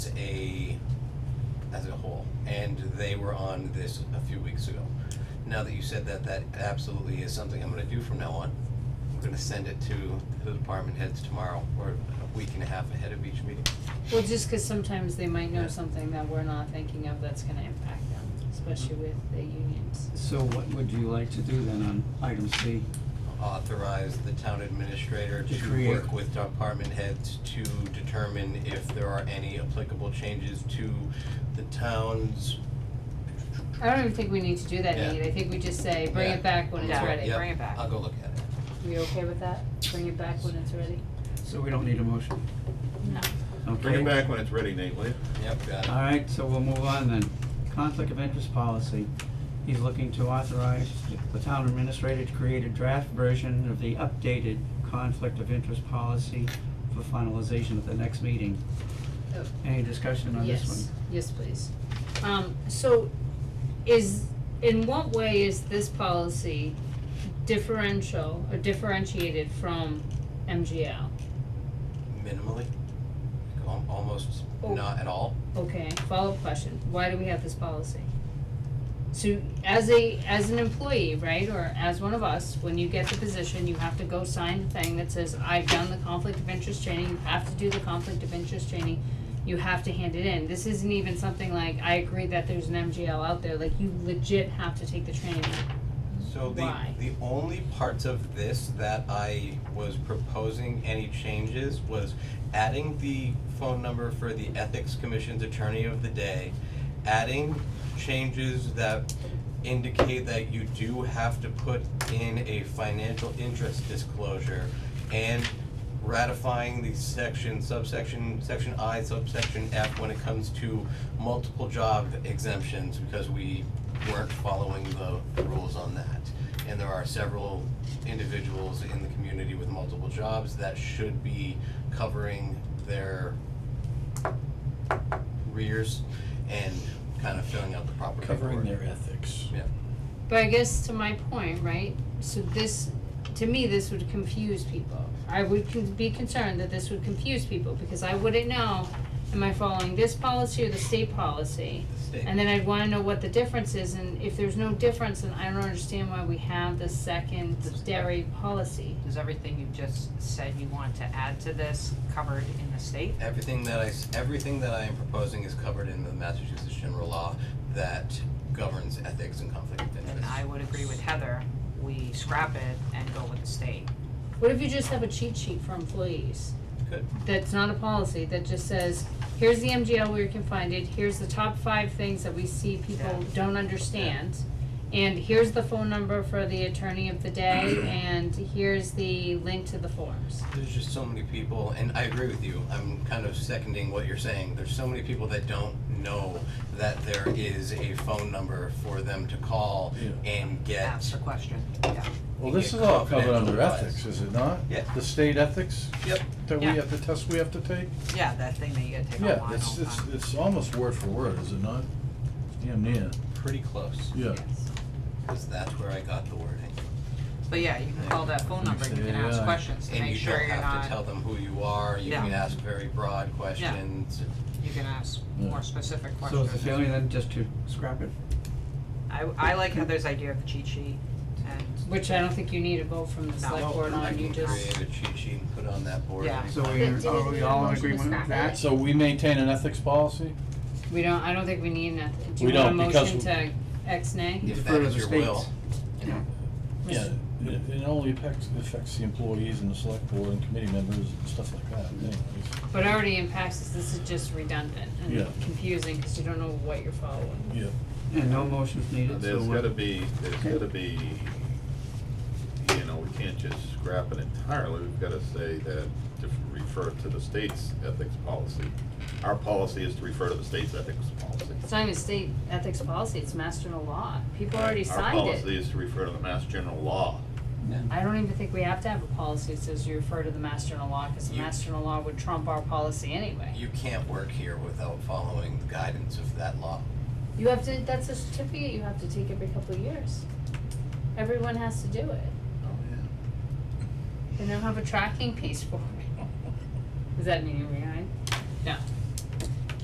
a as a whole, and they were on this a few weeks ago. Now that you said that, that absolutely is something I'm going to do from now on. I'm going to send it to the department heads tomorrow, or a week and a half ahead of each meeting. Well, just cause sometimes they might know Yeah. something that we're not thinking of that's gonna impact them, especially Mm-hmm. with the unions. So what would you like to do then on item C? Authorize the town administrator To to create- work with department heads to determine if there are any applicable changes to the town's. I don't even think we need to do that, Yeah. Nate, I think we just say, bring Yeah. it back when it's Yeah. ready. Yep, bring it back. I'll go look at it. You okay with that? Bring it back when it's ready? So we don't need a motion, No. okay? Bring it back when it's ready, Nate, will you? Yep, got it. All right, so we'll move on then. Conflict of interest policy. He's looking to authorize the town administrator to create a draft version of the updated conflict of interest policy for finalization at the next meeting. Oh. Any discussion on this one? Yes, yes, please. Um, so is, in what way is this policy differential or differentiated from MGL? minimally, al- almost Oh. not at all. Okay, follow-up question, why do we have this policy? So as a, as an employee, right, or as one of us, when you get the position, you have to go sign the thing that says, I've done the conflict of interest training, you have to do the conflict of interest training, you have to hand it in, this isn't even something like, I agree that there's an MGL out there, like you legit have to take the training. So the, Why? the only parts of this that I was proposing any changes was adding the phone number for the Ethics Commission's Attorney of the Day, adding changes that indicate that you do have to put in a financial interest disclosure, and ratifying the section, subsection, section I, subsection F, when it comes to multiple job exemptions, because we weren't following the rules on that. And there are several individuals in the community with multiple jobs that should be covering their rears and kind of filling out the proper Covering paperwork. their ethics. Yeah. But I guess to my point, right, so this, to me, this would confuse people. I would con- be concerned that this would confuse people, because I wouldn't know, am I following this policy or the state policy? The state. And then I'd wanna know what the difference is, and if there's no difference, then I don't understand why we have the second dairy policy. Is everything you just said you want to add to this covered in the state? Everything that I, s- everything that I am proposing is covered in the Massachusetts general law that governs ethics and conflict of interest. Then I would agree with Heather, we scrap it and go with the state. What if you just have a cheat sheet for employees? Good. that's not a policy, that just says, here's the MGL where you can find it, here's the top five things that we see people Yeah. don't understand. And here's the phone number for the attorney of the day, and here's the link to the forms. There's just so many people, and I agree with you. I'm kind of seconding what you're saying. There's so many people that don't know that there is a phone number for them to call Yeah. and get. That's the question, yeah. Well, You this get is all covered confidential under advice. ethics, is it not? Yeah. The state ethics Yep. that we Yeah. have, the test we have to take? Yeah, that thing that you gotta take Yeah, online all it's, the it's, time. it's almost word for word, is it not? Damn near, Pretty close, yeah. Yes. because that's where I got the wording. But yeah, you can call that phone number and you can ask Yeah. questions to And make you sure don't you're have to not, tell them who you are. You Yeah. can ask very broad questions. you can ask Yeah. more specific So questions. is the feeling then just to scrap it? I, I like Heather's idea of the cheat sheet and, Which I don't think you need a vote from the No. select board I on, you can just, create a cheat sheet and put on that board. Yeah. So we, are we all in agreement with that? So we maintain an ethics policy? we don't, I don't think we need nothing, do We you want a don't, because motion to X nay? If Defer that to is the your states. will. Yeah. Yeah, it, it only affects, affects the employees and the select board and committee members and stuff like that, anyways. But it already impacts us, this is just redundant Yeah. and confusing, cause you don't know what you're following. Yeah. And no motions needed, so There's we'll. gotta be, there's gotta be, you know, we can't just scrap it entirely, we've gotta say that, to refer to the state's ethics policy. Our policy is to refer to the state's ethics policy. It's not even state ethics policy, it's master of law. People already signed Our policy it. is to refer to the Mass General Law. I don't even think we have to have a policy that says you refer to the master in law, cause the You- master in law would trump our policy anyway. You can't work here without following the guidance of that law. You have to, that's a certificate you have to take every couple of years. Everyone has to do it. Oh, yeah. They don't have a tracking piece for it. Is that meaning we, I